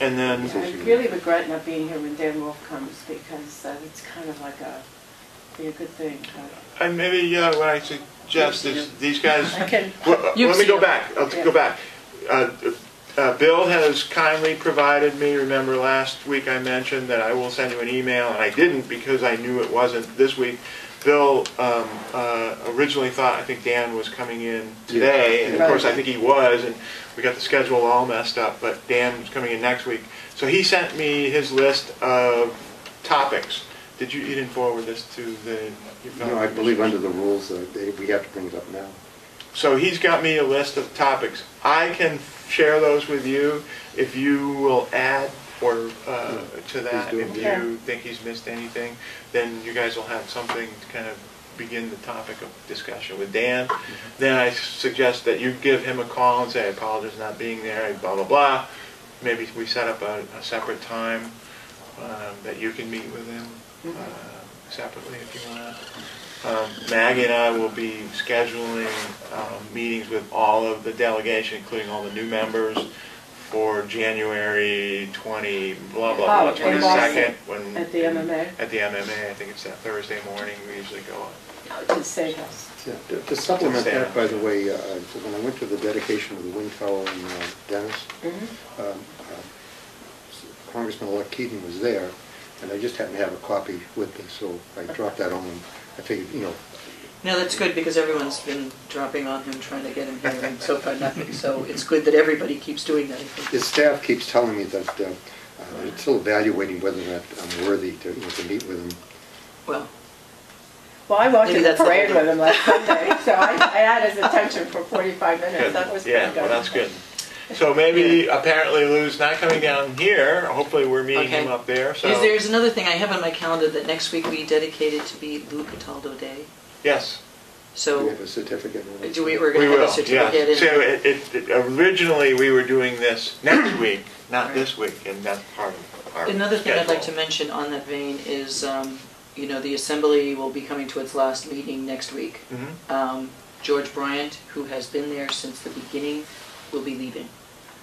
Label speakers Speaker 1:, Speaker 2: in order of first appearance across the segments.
Speaker 1: And then-
Speaker 2: I really regret not being here when Dan Wolf comes because uh, it's kind of like a, be a good thing. but-
Speaker 1: And maybe uh, what I suggest is these guys.
Speaker 2: I can,
Speaker 1: Well,
Speaker 3: You've
Speaker 1: let me
Speaker 3: seen
Speaker 1: go
Speaker 3: them.
Speaker 1: back. I'll
Speaker 2: Yeah.
Speaker 1: go back. Uh, uh, Bill has kindly provided me. Remember last week I mentioned that I will send you an email, and I didn't because I knew it wasn't this week. Bill um, uh, originally thought I think Dan was coming in today, and of
Speaker 2: Right.
Speaker 1: course I think he was, and we got the schedule all messed up. But Dan was coming in next week, so he sent me his list of topics. Did you? You didn't forward this to the. your fellow
Speaker 4: No, I believe
Speaker 1: commissioners?
Speaker 4: under the rules, uh, they- we have to bring it up now.
Speaker 1: So he's got me a list of topics. I can share those with you if you will add or uh, to that.
Speaker 4: Please do.
Speaker 1: If you think he's missed anything, then you guys will have something to kind of begin the topic of discussion with Dan.
Speaker 4: Mm-hmm.
Speaker 1: Then I suggest that you give him a call and say, I apologize for not being there, and blah, blah, blah. Maybe we set up a, a separate time um, that you can meet with him uh,
Speaker 2: Mm-hmm.
Speaker 1: separately if you want. Um, Maggie and I will be scheduling um, meetings with all of the delegation, including all the new members, for January 20, blah, blah,
Speaker 2: Oh,
Speaker 1: blah,
Speaker 2: in
Speaker 1: 22nd.
Speaker 2: Boston,
Speaker 1: when-
Speaker 2: at the MMA?
Speaker 1: At the MMA, I think it's that Thursday morning, we usually go.
Speaker 2: to save us.
Speaker 4: Yeah, to- To supplement that, by the way, uh, when I went to the dedication of the wind tower in uh, Dennis,
Speaker 3: Mm-hmm.
Speaker 4: um, um, Congressman-elect Keating was there, and I just happened to have a copy with me, so I dropped that on him. I figured, you know,
Speaker 3: No, that's good because everyone's been dropping on him, trying to get him here, and so far nothing. So it's good that everybody keeps doing that. I think.
Speaker 4: his staff keeps telling me that uh, uh, they're still evaluating whether or not I'm worthy to, you know, to meet with him.
Speaker 3: Well,
Speaker 2: Well, I walked
Speaker 3: Maybe
Speaker 2: in the
Speaker 3: that's the
Speaker 2: parade
Speaker 3: whole
Speaker 2: with him last Sunday, so I I had his attention for 45 minutes. That was
Speaker 1: Good.
Speaker 2: pretty
Speaker 1: Yeah,
Speaker 2: good.
Speaker 1: well, that's good. So maybe apparently Lou's not coming down here, hopefully we're meeting him
Speaker 3: Okay.
Speaker 1: up there,
Speaker 3: is
Speaker 1: so.
Speaker 3: there's another thing I have on my calendar that next week we dedicated to be Lou Cataldo Day.
Speaker 4: Do
Speaker 1: Yes.
Speaker 4: we
Speaker 3: So
Speaker 4: have a certificate? or-
Speaker 3: do we? We're
Speaker 1: We
Speaker 3: going to
Speaker 1: will,
Speaker 3: have a
Speaker 1: yeah.
Speaker 3: certificate. in-
Speaker 1: So it, it- it- originally, we were doing this next week, not
Speaker 3: Right.
Speaker 1: this week, and that's part of our
Speaker 3: Another thing I'd like to
Speaker 1: schedule.
Speaker 3: mention on that vein is, um, you know, the assembly will be coming to its last meeting next week.
Speaker 1: Mhm.
Speaker 3: Um, George Bryant, who has been there since the beginning, will be leaving.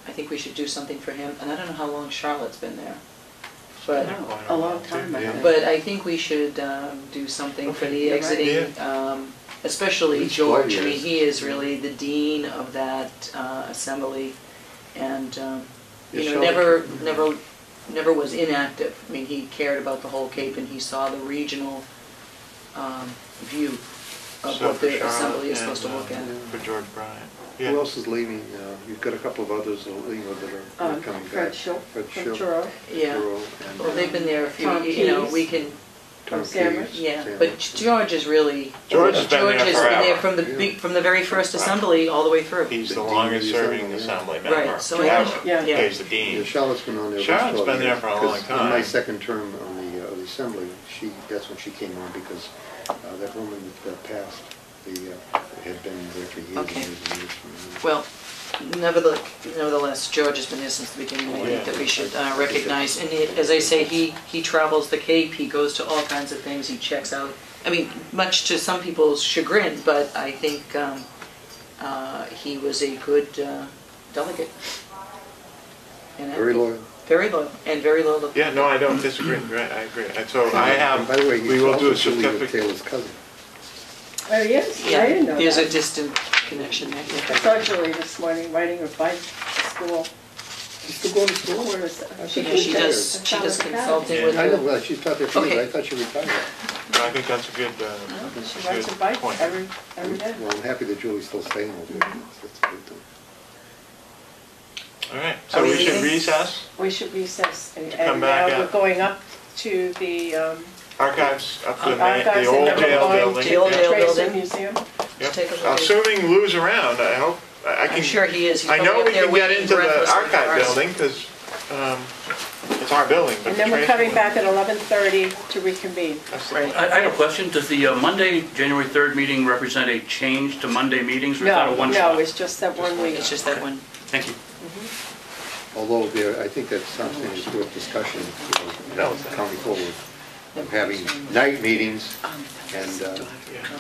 Speaker 3: I think we should do something for him, and I don't know how long Charlotte's been there. But,
Speaker 2: No, A long time
Speaker 1: Yeah.
Speaker 2: ago.
Speaker 3: but I think we should um, do something for
Speaker 1: Okay,
Speaker 3: the
Speaker 2: you're right.
Speaker 3: exiting, um, especially
Speaker 4: He's four
Speaker 3: George. I mean,
Speaker 4: years.
Speaker 3: he is really the dean of that uh, assembly, and, um, you
Speaker 4: Is
Speaker 3: know, never,
Speaker 4: Charlotte-
Speaker 3: never, never was inactive. I mean, he cared about the whole Cape, and he saw the regional um, view of
Speaker 1: So
Speaker 3: what
Speaker 1: for
Speaker 3: the
Speaker 1: Charlotte
Speaker 3: assembly is
Speaker 1: and,
Speaker 3: supposed to
Speaker 1: uh,
Speaker 3: look at.
Speaker 1: For George Bryant.
Speaker 4: Who else is leaving? Uh, You've got a couple of others, uh, you know, that are- are
Speaker 2: Um,
Speaker 4: coming back.
Speaker 2: Fred Schultz
Speaker 4: Fred
Speaker 2: from
Speaker 4: Schultz,
Speaker 2: Truro.
Speaker 3: Yeah,
Speaker 4: Thoreau, and, uh,
Speaker 3: well, they've been there a few,
Speaker 2: Tom
Speaker 3: you know,
Speaker 2: Keyes.
Speaker 3: we can,
Speaker 4: Tom
Speaker 2: Sandwich.
Speaker 4: Keyes,
Speaker 3: yeah,
Speaker 4: Sandwich.
Speaker 3: but George is really,
Speaker 1: George has been
Speaker 3: George
Speaker 1: there
Speaker 3: has been
Speaker 1: forever.
Speaker 3: there from the, be- from the very first assembly all the way through.
Speaker 1: He's
Speaker 4: The
Speaker 1: the
Speaker 4: dean of
Speaker 1: longest
Speaker 4: the
Speaker 1: serving
Speaker 4: assembly,
Speaker 1: assembly
Speaker 3: yeah.
Speaker 1: member.
Speaker 3: Right, so I think-
Speaker 1: ever.
Speaker 2: yeah.
Speaker 3: Yeah.
Speaker 1: He's the
Speaker 4: Yeah,
Speaker 1: dean.
Speaker 4: Charlotte's been on there.
Speaker 1: Charlotte's
Speaker 4: for 12
Speaker 1: been there
Speaker 4: years,
Speaker 1: for a
Speaker 4: 'cause
Speaker 1: long
Speaker 4: In my
Speaker 1: time.
Speaker 4: second term on the, uh, of the assembly, she, that's when she came on because uh, that woman that uh, passed, the, uh, had been there for years and
Speaker 3: Okay.
Speaker 4: years and years. and years.
Speaker 3: Well, nevertheless, nevertheless, George has been there since the beginning,
Speaker 1: Oh,
Speaker 3: I think that we should uh, recognize, and it- as I say, he, he travels the Cape, he goes to all kinds of things, he checks out, I mean, much to some people's chagrin, but I think um, uh, he was a good uh, delegate. And I-
Speaker 4: Very loyal.
Speaker 3: Very loyal, and very loyal. to-
Speaker 1: Yeah, no, I don't disagree, right, I agree. And so I have,
Speaker 4: And By the way,
Speaker 1: we
Speaker 4: he's
Speaker 1: will
Speaker 4: also
Speaker 1: do a
Speaker 4: Julia
Speaker 1: certificate.
Speaker 4: Taylor's cousin.
Speaker 2: Oh, yes, I
Speaker 3: Yeah,
Speaker 2: didn't know
Speaker 3: there's a
Speaker 2: that.
Speaker 3: distant connection there.
Speaker 2: I saw Julie this morning riding her bike to school.
Speaker 4: She's still going to school?
Speaker 2: Where is-
Speaker 4: I
Speaker 2: she
Speaker 4: think
Speaker 3: Yeah, she
Speaker 2: did-
Speaker 3: does, she does consulting with
Speaker 4: I know,
Speaker 3: the,
Speaker 4: well, she's not there for years,
Speaker 3: Okay.
Speaker 4: I thought she retired.
Speaker 1: I think that's a good, uh,
Speaker 2: She
Speaker 1: good
Speaker 2: rides her bike
Speaker 1: point.
Speaker 2: every, every day.
Speaker 4: Well, I'm happy that Julie's still staying over there. That's good, too.
Speaker 1: All right, so
Speaker 3: Are
Speaker 1: we
Speaker 3: we
Speaker 1: should
Speaker 3: leaving?
Speaker 1: recess
Speaker 2: We should recess. and-
Speaker 1: come
Speaker 2: And now
Speaker 1: back
Speaker 2: we're
Speaker 1: up.
Speaker 2: going up to the um,
Speaker 1: archives up to the main,
Speaker 2: archives
Speaker 1: the
Speaker 2: and
Speaker 1: old
Speaker 2: then we're
Speaker 1: jail
Speaker 2: going
Speaker 1: building.
Speaker 2: to
Speaker 3: The old
Speaker 2: the
Speaker 3: jail
Speaker 2: Tracer
Speaker 3: building.
Speaker 2: Museum.
Speaker 1: Yep.
Speaker 3: Take a look.
Speaker 1: Assuming Lou's around, I hope, I I can.
Speaker 3: I'm sure he is. He's
Speaker 1: I know
Speaker 3: probably up
Speaker 1: we
Speaker 3: there
Speaker 1: can get
Speaker 3: waiting
Speaker 1: into the
Speaker 3: breathlessly for
Speaker 1: archive
Speaker 3: us.
Speaker 1: building, because it's our building. but
Speaker 2: And then we're
Speaker 1: Tracy
Speaker 2: coming
Speaker 1: would-
Speaker 2: back at 11:30 to reconvene.
Speaker 1: that's the
Speaker 3: Right.
Speaker 1: plan.
Speaker 5: I I have a question. Does the uh, Monday, January 3rd meeting represent a change to Monday meetings? or is that a
Speaker 2: No, no,
Speaker 5: one-shot?
Speaker 2: it's just that one week.
Speaker 3: It's just that one.
Speaker 5: Thank you.
Speaker 4: Although there, I think that's something that's worth discussion, you know, coming forward, of having night meetings and uh,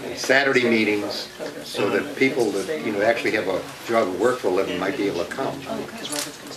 Speaker 4: and Saturday meetings, so that people that, you know, actually have a job and work for a living might be able to come.
Speaker 3: Because Oh, Robert's gonna